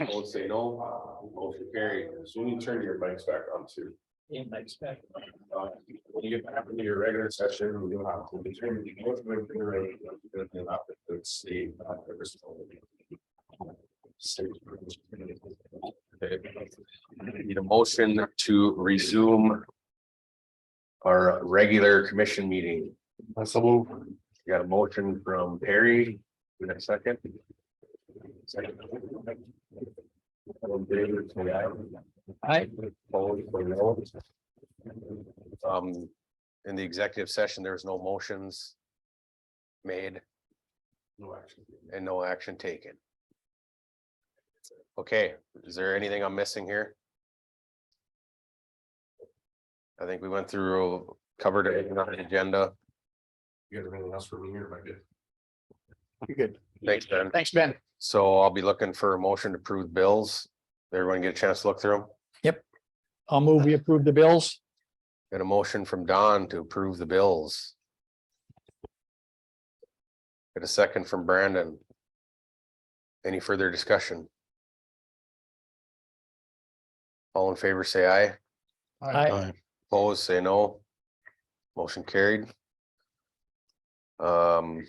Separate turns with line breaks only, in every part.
Opposed, say no. uh, Motion carried. So when you turn your mics back on too.
In my spec.
Uh, When you get back into your regular session, we will have to determine the most of the rate. It's the. uh, the risk of the- Okay. Need a motion to resume. Our regular commission meeting. Got a motion from Perry, in a second. Second. All in favor, say aye.
Aye.
Opposed, say no. Um, in the executive session, there's no motions made. No action. And no action taken. Okay, is there anything I'm missing here? I think we went through, covered it on the agenda. You guys have anything else for me here, if I did?
You're good.
Thanks, Ben.
Thanks, Ben.
So I'll be looking for a motion to approve bills. Everyone get a chance to look through them.
I'll move, we approve the bills.
Got a motion from Don to approve the bills. Got a second from Brandon. Any further discussion? All in favor, say aye.
I,
Opposed, say no. Motion carried. Um,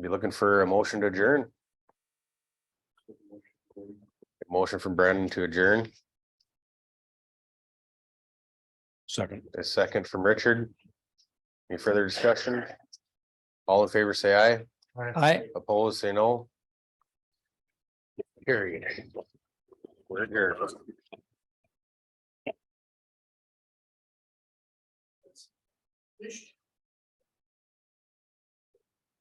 be looking for a motion to adjourn. Motion from Brandon to adjourn,
Second.
a second from Richard. Any further discussion? All in favor, say aye.
I.
Opposed, say no. Carried. We're here.
Finished.